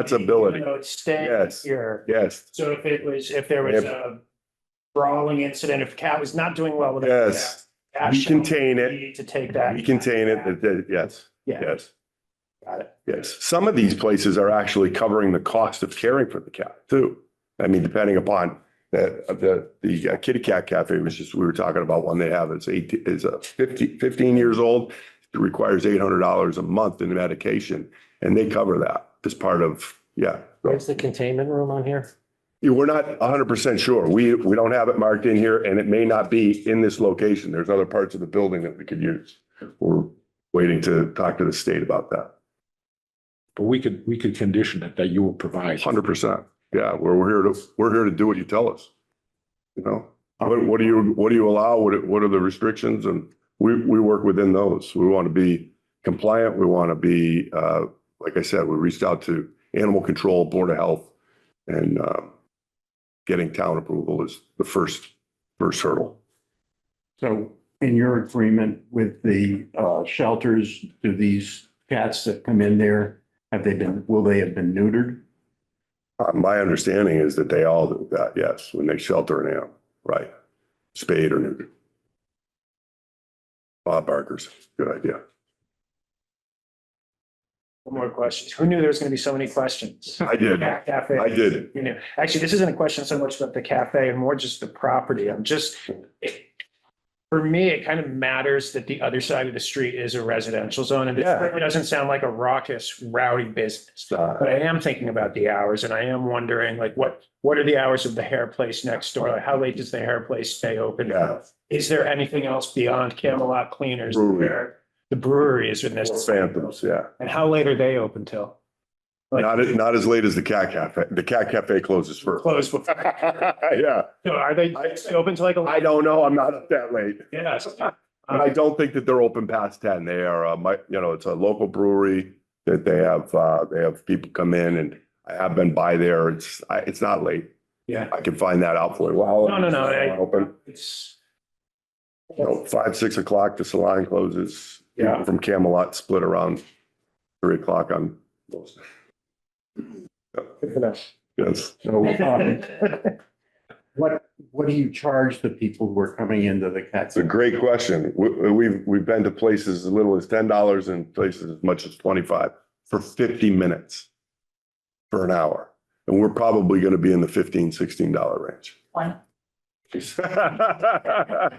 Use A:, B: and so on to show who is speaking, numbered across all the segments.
A: That's ability.
B: You know, it's staying
A: Yes.
B: here.
A: Yes,
B: So if it was, if there was a brawling incident, if Cat was not doing well with. it,
A: yes.
B: Cat
A: We
B: shall
A: contain it.
B: need To take that.
A: We contain it. That- that- Yes,
B: Yeah,
A: yes,
B: got it.
A: yes. Some of these places are actually covering the cost of caring for the cat too. I mean, depending upon the, the, the uh, kitty cat cafe was just, we were talking about one they have. It's eight, is a fifty, fifteen years old. It requires eight hundred dollars a month in medication and they cover that as part of, yeah.
C: Where's the containment room on here?
A: Yeah, We're not hundred percent sure. We, we don't have it marked in here and it may not be in this location. There's other parts of the building that we could use. We're waiting to talk to the state about that.
D: But we could, we could condition it that you will provide.
A: Hundred percent. Yeah, we're, we're here to, we're here to do what you tell us. You know, what, what do you, what do you allow? What, are- what are the restrictions? And we, we work within those. We want to be compliant. We want to be, uh, like I said, we reached out to animal control, board of health. And, um, getting town approval is the first, first hurdle.
E: So in your agreement with the uh, shelters, do these cats that come in there, have they been, will they have been neutered?
A: Uh, my understanding is that they all do that, yes, when they shelter an animal, right? Spayed or neutered. Bob Barker's, good idea.
B: One more question. Who knew there was going to be so many questions?
A: I did,
B: Cat Cafe.
A: I did.
B: You know, actually, this isn't a question so much about the cafe and more just the property. I'm just. it- For me, it kind of matters that the other side of the street is a residential zone and this
A: Yeah.
B: certainly doesn't sound like a raucous rowdy business.
A: Uh,
B: But I am thinking about the hours and I am wondering like what, what are the hours of the hair place next door? Like, How late does the hair place stay open?
A: Yeah.
B: Is there anything else beyond Camelot Cleaners?
A: Brewery.
B: there? The brewery is in this
A: Phantoms, yeah.
B: and how late are they open till? Like-
A: Not, as- not as late as the Cat Cafe. The Cat Cafe closes first.
B: Close before,
A: Yeah,
B: So are they
A: I-
B: open till like? a-
A: I don't know. I'm not up that late.
B: Yes. Uh-huh.
A: But I don't think that they're open past ten. They are, uh, my, you know, it's a local brewery that they have, uh, they have people come in and I have been by there. It's, I, it's not late.
B: Yeah.
A: I can find that out for you. Well,
B: No, no, no, I-
A: Open,
B: It's,
A: you know, five, six o'clock, the salon closes. People
B: Yeah.
A: From Camelot split around three o'clock on those.
B: good enough.
A: Yes.
E: So um, what, what do you charge the people who are coming into the cats?
A: It's a great question. We, we've, we've been to places as little as ten dollars and places as much as twenty-five for fifty minutes. For an hour. And we're probably going to be in the fifteen, sixteen dollar range.
F: One.
A: I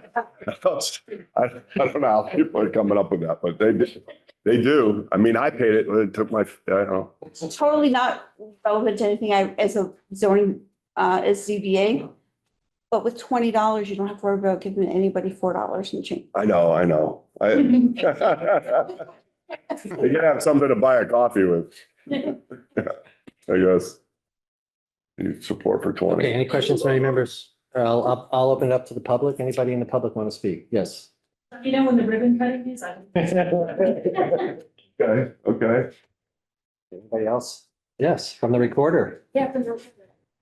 A: don't I don't know how people are coming up with that, but they, do- they do. I mean, I paid it, it took my, I don't know.
F: It's totally not relevant to anything I, as a zoning, uh, as ZBA. But with twenty dollars, you don't have to worry about giving anybody four dollars and change.
A: I know, I know. I, you gotta have something to buy a coffee with, I guess. You support for twenty.
C: Okay, any questions, from any members? I'll, I'll- I'll open it up to the public. Anybody in the public want to speak? Yes.
G: You know when the ribbon cutting is? I
A: Okay, okay.
C: Anybody else? Yes, from the recorder.
G: Yeah, from the,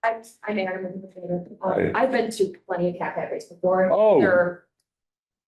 G: I'm, I'm Aaron. I'm the trainer. Um, I've been to plenty of cat cafes before.
A: Oh.
G: They're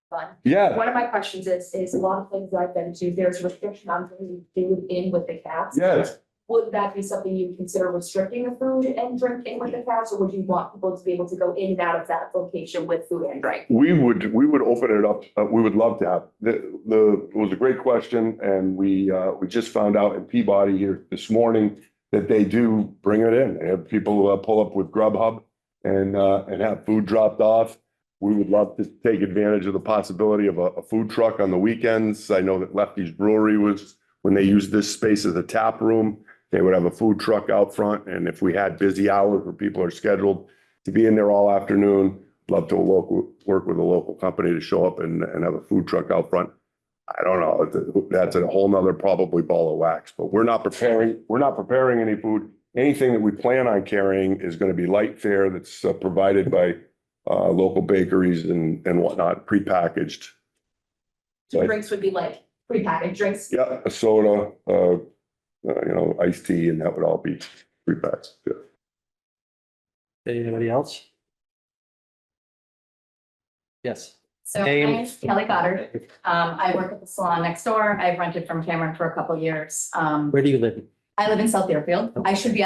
G: Fun.
A: Yeah,
G: One of my questions is, is a lot of things I've been to, there's restriction on bringing food in with the cats.
A: yes.
G: Would that be something you consider restricting the food and drink in with the cats, or would you want people to be able to go in and out of that location with food and drink?
A: We would, we would open it up, uh, we would love to have, the, the, it was a great question, and we, uh, we just found out in Peabody here this morning that they do bring it in, they have people uh, pull up with Grubhub and, uh, and have food dropped off. We would love to take advantage of the possibility of a, a food truck on the weekends. I know that Lefty's Brewery was, when they used this space as a tap room, they would have a food truck out front, and if we had busy hours where people are scheduled to be in there all afternoon, love to local, work with a local company to show up and, and have a food truck out front. I don't know, it's- that's a whole nother probably ball of wax, but we're not preparing, we're not preparing any food. Anything that we plan on carrying is gonna be light fare that's uh, provided by, uh, local bakeries and, and whatnot, prepackaged.
G: So
A: Right.
G: drinks would be like prepackaged drinks.
A: Yeah, a soda, uh, uh, you know, iced tea, and that would all be prepackaged, yeah.
C: Anybody else? Yes.
H: So my
C: Name.
H: name's Kelly Goddard. Um, I work at the salon next door. I've rented from Cameron for a couple years. Um,
C: Where do you live?
G: I live in South Deerfield. I should be